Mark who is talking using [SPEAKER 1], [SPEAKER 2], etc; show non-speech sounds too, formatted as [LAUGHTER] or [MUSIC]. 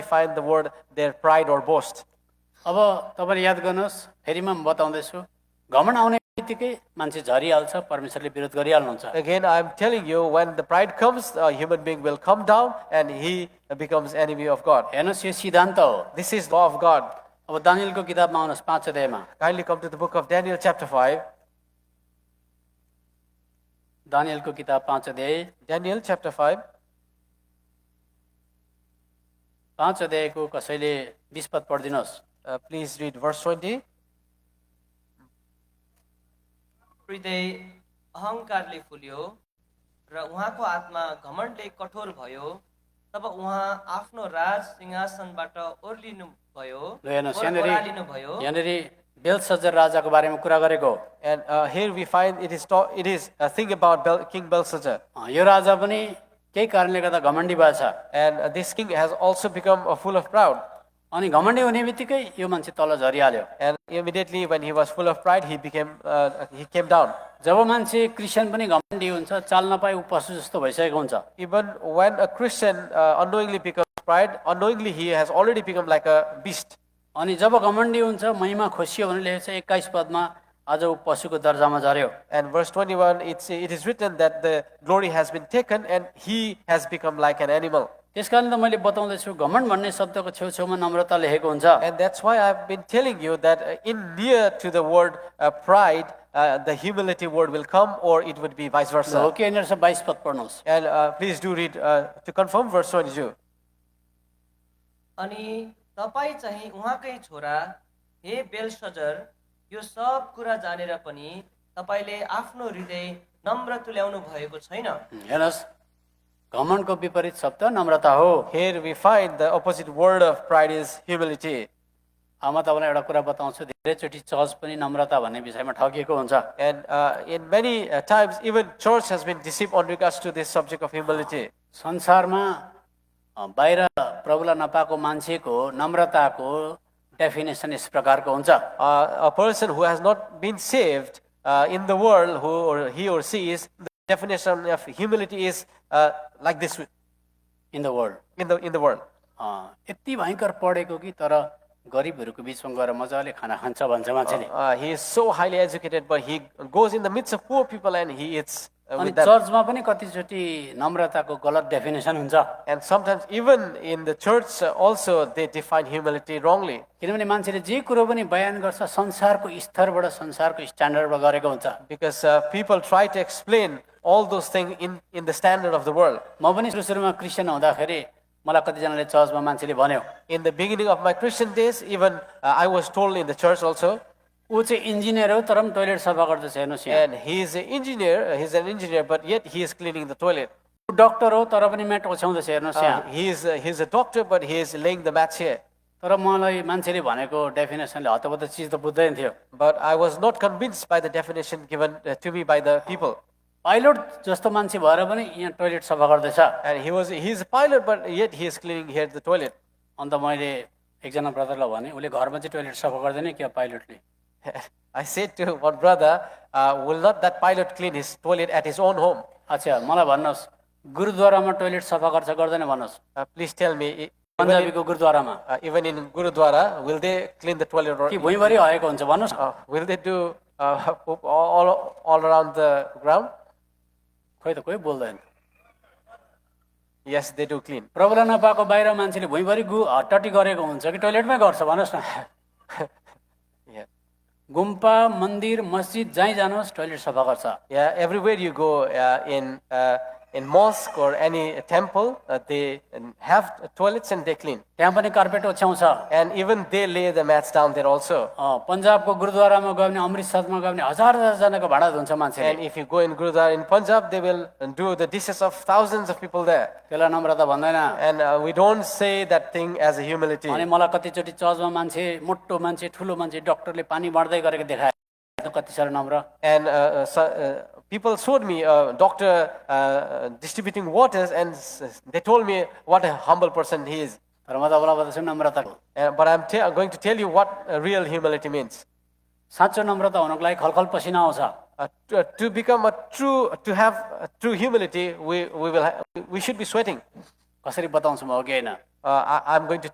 [SPEAKER 1] find the word their pride or boast.
[SPEAKER 2] अब तपाईँले याद गर्नुहोस् फेरिमा म बताउँदैछु घमण्ड आउने बित्तिकै मान्छे झरिहाल्छ परमेश्वरले विरोध गरिहाल्नुहुन्छ
[SPEAKER 1] Again, I'm telling you, when the pride comes, a human being will come down and he becomes enemy of God.
[SPEAKER 2] हेर्नुहोस् यो सिद्धान्त हो
[SPEAKER 1] This is law of God.
[SPEAKER 2] अब दानियलको किताबमा आउनुहोस् पाँच अध्यायमा
[SPEAKER 1] Kindly come to the book of Daniel, chapter 5.
[SPEAKER 2] दानियलको किताब पाँच अध्याय
[SPEAKER 1] Daniel, chapter 5.
[SPEAKER 2] पाँच अध्यायको कसैले बिस पद पढिदिनुहोस्
[SPEAKER 1] Uh, please read verse 20.
[SPEAKER 3] हृदय अहङ्कारले फुल्यो र उहाँको आत्मा घमण्डले कठोर भयो तब उहाँ आफ्नो राज सिंहासनबाट ओर्लिनु भयो
[SPEAKER 2] ल हेर्नुहोस्
[SPEAKER 3] ओरालिनु भयो
[SPEAKER 2] यहाँनिर यहाँनिर बेलसजर राजाको बारेमा कुरा गरेको हो
[SPEAKER 1] And uh, here we find it is talk, it is a thing about Bel- King Belshazzar.
[SPEAKER 2] अँ, यो राजा पनि केही कारणले गर्दा घमण्डी भएछ
[SPEAKER 1] And uh, this king has also become uh, full of pride.
[SPEAKER 2] अनि घमण्डी हुने बित्तिकै यो मान्छे तल झरिहाल्यो
[SPEAKER 1] And immediately when he was full of pride, he became uh, he came down.
[SPEAKER 2] जब मान्छे क्रिस्चियन पनि घमण्डी हुन्छ चाल नपाए ऊ पशु जस्तो भइसकेको हुन्छ
[SPEAKER 1] Even when a Christian uh, unknowingly becomes pride, unknowingly he has already become like a beast.
[SPEAKER 2] अनि जब घमण्डी हुन्छ महिमा खोसियो भने लेखेको छ एक्काइस पदमा आज ऊ पशुको दर्जामा झऱ्यो
[SPEAKER 1] And verse 21, it's, it is written that the glory has been taken and he has become like an animal.
[SPEAKER 2] त्यस कारण त मैले बताउँदैछु घमण्ड भन्ने शब्दको छेउछेउमा नम्रता लेखेको हुन्छ
[SPEAKER 1] And that's why I've been telling you that uh, in near to the word uh, pride, uh, the humility word will come or it would be vice
[SPEAKER 2] हो
[SPEAKER 1] versa.
[SPEAKER 2] कि यहाँनिर छ बाइस पद पढ्नुहोस्
[SPEAKER 1] And uh, please do read uh, to confirm verse 22.
[SPEAKER 3] अनि तपाईँ चाहिँ उहाँकै छोरा हे बेलसजर यो सब कुरा जानेर पनि तपाईँले आफ्नो हृदय नम्र तुल्याउनु भएको छैन
[SPEAKER 2] हेर्नुहोस् घमण्डको विपरीत शब्द नम्रता हो
[SPEAKER 1] Here we find the opposite word of pride is humility.
[SPEAKER 2] अब म तपाईँलाई एउटा कुरा बताउँछु धेरैचोटि चर्च पनि नम्रता भन्ने विषयमा ठगिएको हुन्छ
[SPEAKER 1] And uh, in many uh, times, even church has been deceived on regards to this subject of humility.
[SPEAKER 2] संसारमा अ, बाहिर प्रभुलाई नपाएको मान्छेको नम्रताको डेफिनेसन यस प्रकारको हुन्छ
[SPEAKER 1] Uh, a person who has not been saved uh, in the world, who or he or she is, the definition of humility is uh, like this
[SPEAKER 2] in the world
[SPEAKER 1] in the in the world.
[SPEAKER 2] यति भयङ्कर पढेको कि तर गरिबहरूको बिचमा गएर मजाले खाना खान्छ भन्छ मान्छेले
[SPEAKER 1] Uh, he is so highly educated, but he goes in the midst of poor people and he eats uh,
[SPEAKER 2] अनि
[SPEAKER 1] with them.
[SPEAKER 2] चर्चमा पनि कतिचोटि नम्रताको गलत डेफिनेसन हुन्छ
[SPEAKER 1] And sometimes, even in the church, uh, also they define humility wrongly.
[SPEAKER 2] किनभने मान्छेले जे कुरो पनि बयान गर्छ संसारको स्तरबाट संसारको स्ट्यान्डर्डबाट गरेको हुन्छ
[SPEAKER 1] Because uh, people try to explain all those things in, in the standard of the world.
[SPEAKER 2] म पनि सुरु सुरुमा क्रिस्चियन हुँदाखेरि मलाई कतिजनाले चर्चमा मान्छेले भन्यो
[SPEAKER 1] In the beginning of my Christian days, even uh, I was told in the church also,
[SPEAKER 2] ऊ चाहिँ इन्जिनियर हो तर पनि टोइलेट सफा गर्दैछ हेर्नुहोस् यहाँ
[SPEAKER 1] and he is an engineer, uh, he's an engineer, but yet he is cleaning the toilet.
[SPEAKER 2] ऊ डक्टर हो तर पनि म्याट ओछ्याउँदैछ हेर्नुहोस् यहाँ
[SPEAKER 1] Uh, he is uh, he's a doctor, but he is laying the mats here.
[SPEAKER 2] तर मलाई मान्छेले भनेको डेफिनेसनले हतपत चिज त बुझ्दैन थियो
[SPEAKER 1] But I was not convinced by the definition given uh, to me by the people.
[SPEAKER 2] Pilot जस्तो मान्छे भएर पनि यहाँ टोइलेट सफा गर्दैछ
[SPEAKER 1] And he was he is a pilot, but yet he is cleaning here the toilet. [LAUGHS]
[SPEAKER 2] अन्त मैले एकजना ब्रदरलाई भने उसले घरमा चाहिँ टोइलेट सफा गर्दैन क्या पाइलटले
[SPEAKER 1] I said to one brother, uh, "Will not that pilot clean his toilet at his own home?
[SPEAKER 2] अच्छा मलाई भन्नुहोस् गुरुद्वारामा टोइलेट सफा गर्छ गर्दैन भन्नुहोस्
[SPEAKER 1] Uh, please tell me." i- Even in,
[SPEAKER 2] पन्जाबीको गुरुद्वारामा
[SPEAKER 1] uh, even in Gurudwara, will they clean the toilet or
[SPEAKER 2] कि भुइँभरि हरेको हुन्छ भन्नुहोस्
[SPEAKER 1] Uh, will they do uh, [LAUGHS] poop all, all, all around the ground?
[SPEAKER 2] खोइ त कोही बोल्दैन
[SPEAKER 1] Yes, they do clean.
[SPEAKER 2] प्रबल नपाएको बाहिर मान्छेले भुइँभरि गु हट्टटी गरेको हुन्छ कि टोइलेटमै गर्छ भन्नुहोस् न [LAUGHS]
[SPEAKER 1] Yeah.
[SPEAKER 2] गुम्पा मन्दिर मस्जिद जहीँ जानुहोस् टोइलेट सफा गर्छ
[SPEAKER 1] Yeah, everywhere you go uh, in, uh, in mosque or any temple, uh, they um, have toilets and they clean.
[SPEAKER 2] त्यहाँ पनि कार्पेट ओछ्याउँछ
[SPEAKER 1] And even they lay the mats down there also.
[SPEAKER 2] अँ, पन्जाबको गुरुद्वारामा गयो भने अमृतसरमा गयो भने हजार हजारजनाको भाडा धुन्छ मान्छेले
[SPEAKER 1] And if you go in Gurudwara in Punjab, they will do the dishes of thousands of people there.
[SPEAKER 2] त्यसलाई नम्रता भन्दैन
[SPEAKER 1] And uh, we don't say that thing as a humility.
[SPEAKER 2] अनि मलाई कतिचोटि चर्चमा मान्छे मोटो मान्छे ठुलो मान्छे डक्टरले पानी बाँड्दै गरेको देखाए त कति साह्रो नम्र
[SPEAKER 1] And uh, uh, so, uh, people showed me a doctor uh, uh, distributing waters, and s- s- they told me what a humble person he is.
[SPEAKER 2] तर म तपाईँलाई बताउँछु नम्रताको
[SPEAKER 1] Uh, but I'm te- going to tell you what uh, real humility means.
[SPEAKER 2] साँचो नम्रता हुनुको लागि खलखल पसिना आउँछ
[SPEAKER 1] Uh, to, uh, to become a true, to have a true humility, we, we, will ha- we should be sweating.
[SPEAKER 2] कसरी बताउँछु म हो कि होइन
[SPEAKER 1] Uh, I, I'm going to